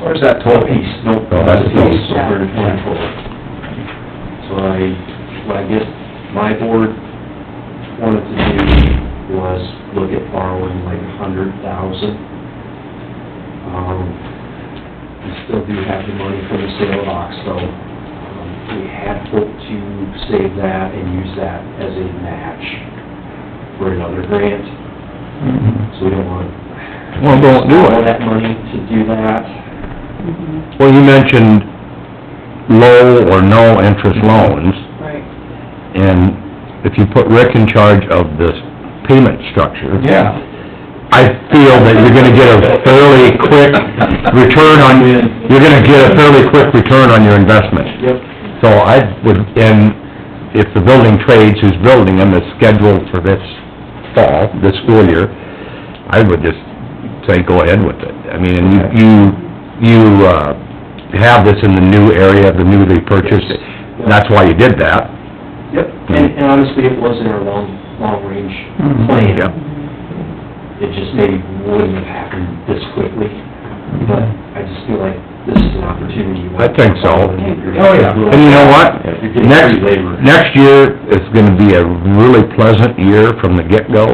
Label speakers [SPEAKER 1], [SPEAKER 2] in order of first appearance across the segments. [SPEAKER 1] Or is that total?
[SPEAKER 2] piece?
[SPEAKER 1] Nope,
[SPEAKER 2] No,
[SPEAKER 1] that's
[SPEAKER 2] that's
[SPEAKER 1] a
[SPEAKER 2] total.
[SPEAKER 1] piece, so we're in total. So I, what I guess my board wanted to do was look at borrowing like a hundred thousand. Um, we still do have the money from the sale of Oxbow. Um, We had hoped to save that and use that as a match for another grant, so we don't want
[SPEAKER 2] Well, don't do
[SPEAKER 1] all
[SPEAKER 2] it.
[SPEAKER 1] that money to do that.
[SPEAKER 2] Well, you mentioned low or no interest loans,
[SPEAKER 3] Right.
[SPEAKER 2] and if you put Rick in charge of this payment structure.
[SPEAKER 4] Yeah.
[SPEAKER 2] I feel that you're gonna get a fairly quick return on, you're gonna get a fairly quick return on your investment.
[SPEAKER 1] Yep.
[SPEAKER 2] So I would, and if the building trades who's building them is scheduled for this fall, this school year, I would just say go ahead with it. I mean, and you, you, you, uh, have this in the new area, the newly purchased, that's why you did that.
[SPEAKER 1] Yep, and and honestly, it was in our long, long-range
[SPEAKER 2] Mm-hmm.
[SPEAKER 1] plan.
[SPEAKER 2] Yeah.
[SPEAKER 1] It just maybe wouldn't have happened this quickly, but I just feel like this is an opportunity.
[SPEAKER 2] I think
[SPEAKER 1] Oh,
[SPEAKER 2] so. And you know what?
[SPEAKER 1] You're getting
[SPEAKER 2] Next,
[SPEAKER 1] free labor.
[SPEAKER 2] next year is gonna be a really pleasant year from the get-go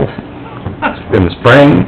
[SPEAKER 2] in the spring,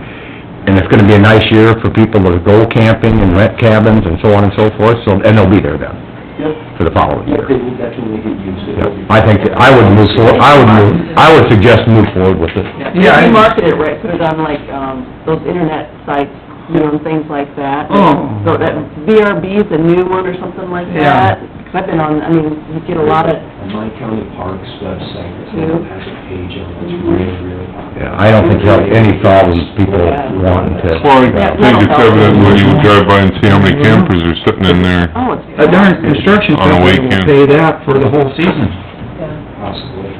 [SPEAKER 2] and it's gonna be a nice year for people to go camping and rent cabins and so on and so forth, so, and they'll be there then,
[SPEAKER 1] Yep,
[SPEAKER 2] for the following
[SPEAKER 1] yep, it
[SPEAKER 2] year.
[SPEAKER 1] will definitely get used. It
[SPEAKER 2] Yeah,
[SPEAKER 1] will be-
[SPEAKER 2] I think, that I would move forward, I would move, I would suggest move forward with it.
[SPEAKER 4] Yeah, I-
[SPEAKER 3] You market it right, put it on like, um, those internet sites, you know, and things like that.
[SPEAKER 4] Oh.
[SPEAKER 3] So that VRB is a new one or something like
[SPEAKER 4] Yeah.
[SPEAKER 3] that. i I've been on, I mean, you get a lot of,
[SPEAKER 1] On My County Parks website, it has a page on it, it's really, really popular.
[SPEAKER 2] Yeah, I don't think there'll be any problems, people wanting to,
[SPEAKER 5] Well, I think it's evident when you drive by and see how many campers are sitting in there.
[SPEAKER 3] oh, it's...
[SPEAKER 4] A darn construction
[SPEAKER 5] On a
[SPEAKER 4] company will
[SPEAKER 5] weekend.
[SPEAKER 4] pay that for the whole season.
[SPEAKER 1] Possibly.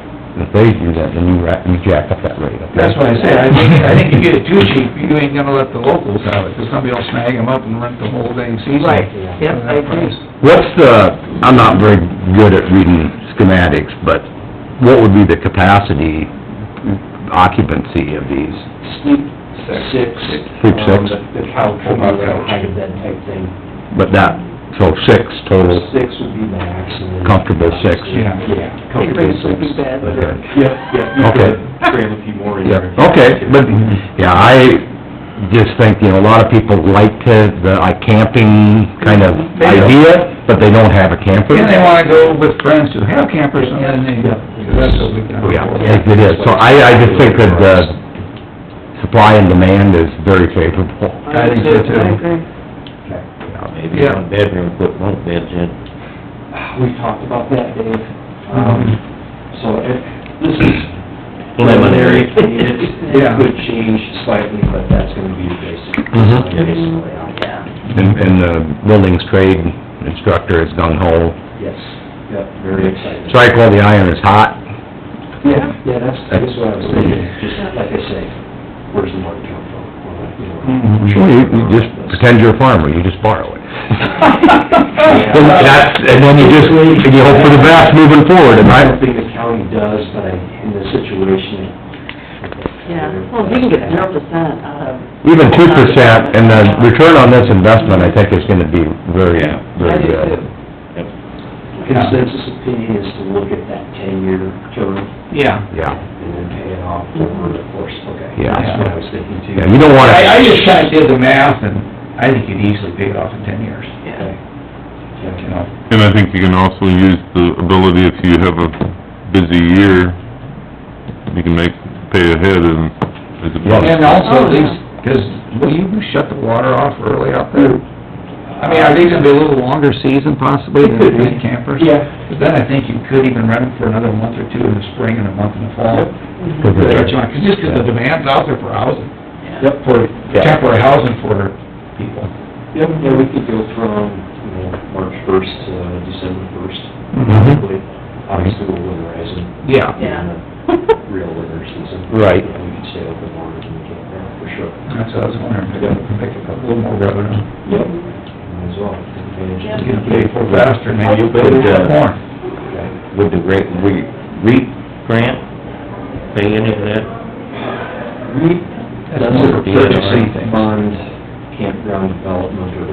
[SPEAKER 2] if they do that, then you ra- you jack up that rate, okay?
[SPEAKER 4] That's what I said, I think, I think you get it too cheap, you ain't gonna let the locals have it, 'cause somebody will snag them up and rent the whole dang season.
[SPEAKER 3] Right,
[SPEAKER 4] for
[SPEAKER 3] yep, I
[SPEAKER 4] that
[SPEAKER 3] agree.
[SPEAKER 4] price.
[SPEAKER 2] What's the, I'm not very good at reading schematics, but what would be the capacity occupancy of these?
[SPEAKER 1] Sleep six.
[SPEAKER 2] Sleep six.
[SPEAKER 1] um, The the couch, will be like a high bed type thing.
[SPEAKER 2] But that, so six total,
[SPEAKER 1] Six would be max, and then...
[SPEAKER 2] Comfortable six.
[SPEAKER 1] Yeah, comfortable
[SPEAKER 3] Everybody sleeping
[SPEAKER 1] six.
[SPEAKER 3] beds
[SPEAKER 1] But,
[SPEAKER 2] or-
[SPEAKER 1] uh, Yep, yep, you
[SPEAKER 2] Okay.
[SPEAKER 1] could cram a few more in
[SPEAKER 2] yeah,
[SPEAKER 1] there.
[SPEAKER 2] okay, but, yeah, I just think, you know, a lot of people like to, the like camping kind of idea, but they don't have a camper.
[SPEAKER 4] And they wanna go with friends who have campers, and then
[SPEAKER 1] Yeah.
[SPEAKER 4] they, that's what we've done.
[SPEAKER 2] Oh, Yeah, it is, so I, I just think that the supply and demand is very favorable.
[SPEAKER 4] I think so, too.
[SPEAKER 3] I agree.
[SPEAKER 6] Maybe one bedroom, put one beds in.
[SPEAKER 1] We've talked about that, Dave. Um, so it, this is...
[SPEAKER 6] Preliminary.
[SPEAKER 1] I mean, it's- It
[SPEAKER 4] Yeah.
[SPEAKER 1] could change slightly, but that's gonna be the basic,
[SPEAKER 2] Mhm.
[SPEAKER 1] basic layout.
[SPEAKER 2] And, and the buildings trade instructor is gung ho.
[SPEAKER 1] Yes, yep, very exciting.
[SPEAKER 2] Strike while the iron is hot.
[SPEAKER 1] Yeah, yeah, that's, that's what I was thinking, just like I say, where's the money come from? Well, you know.
[SPEAKER 2] Sure, you, you just pretend you're a farmer, you just borrow it. And that's, and then you just, and you hope for the best moving forward, and
[SPEAKER 1] I
[SPEAKER 2] I,
[SPEAKER 1] don't think the county does, but I, in this situation.
[SPEAKER 3] Yeah, well, if you can get zero percent out of...
[SPEAKER 2] even two percent, and the return on this investment, I think is gonna be very, very good.
[SPEAKER 1] Consensus opinion is to look at that ten-year term
[SPEAKER 4] Yeah.
[SPEAKER 2] Yeah,
[SPEAKER 1] and then pay it off
[SPEAKER 3] Mm-hmm.
[SPEAKER 1] over the course, okay?
[SPEAKER 2] Yeah.
[SPEAKER 1] That's what I was thinking too.
[SPEAKER 2] yeah, you don't wanna.
[SPEAKER 4] I, I just kinda did the math, and I think you'd easily pay it off in ten years,
[SPEAKER 1] Okay.
[SPEAKER 4] you
[SPEAKER 1] Okay.
[SPEAKER 4] know?
[SPEAKER 5] And I think you can also use the ability, if you have a busy year, you can make, pay ahead and, as a
[SPEAKER 4] And
[SPEAKER 5] bonus.
[SPEAKER 4] also
[SPEAKER 3] Oh,
[SPEAKER 4] these, because, will you shut the water off early out there? I mean, are these gonna be a little longer season possibly than
[SPEAKER 1] Could be.
[SPEAKER 4] the campers?
[SPEAKER 1] Yeah,
[SPEAKER 4] But then I think you could even rent them for another month or two in the spring and a month in the fall.
[SPEAKER 2] Cause it-
[SPEAKER 4] Just because the demand's out there for housing,
[SPEAKER 1] yep,
[SPEAKER 4] for
[SPEAKER 2] Yeah.
[SPEAKER 4] temporary housing for people.
[SPEAKER 1] yep, yeah, we could go from, you know, March first to December first.
[SPEAKER 4] Mm-hmm.
[SPEAKER 2] Mhm.
[SPEAKER 1] Obviously, we'll winterize them.
[SPEAKER 4] Yeah.
[SPEAKER 3] Yeah.
[SPEAKER 1] real winter season.
[SPEAKER 2] Right.
[SPEAKER 1] Yeah, We could stay open longer than we can now, for sure.
[SPEAKER 4] That's what I was wondering, if we could make a little more revenue.
[SPEAKER 1] Yep. Might as well, take advantage of
[SPEAKER 4] Get
[SPEAKER 1] it.
[SPEAKER 4] them paid for faster, maybe you'll build
[SPEAKER 6] Yeah.
[SPEAKER 4] more.
[SPEAKER 1] Okay.
[SPEAKER 6] Would the rate, re, REAP grant pay any of that?
[SPEAKER 1] We, that's a
[SPEAKER 4] more of a purchasing
[SPEAKER 1] purchasing
[SPEAKER 4] thing.
[SPEAKER 1] fund, campground development or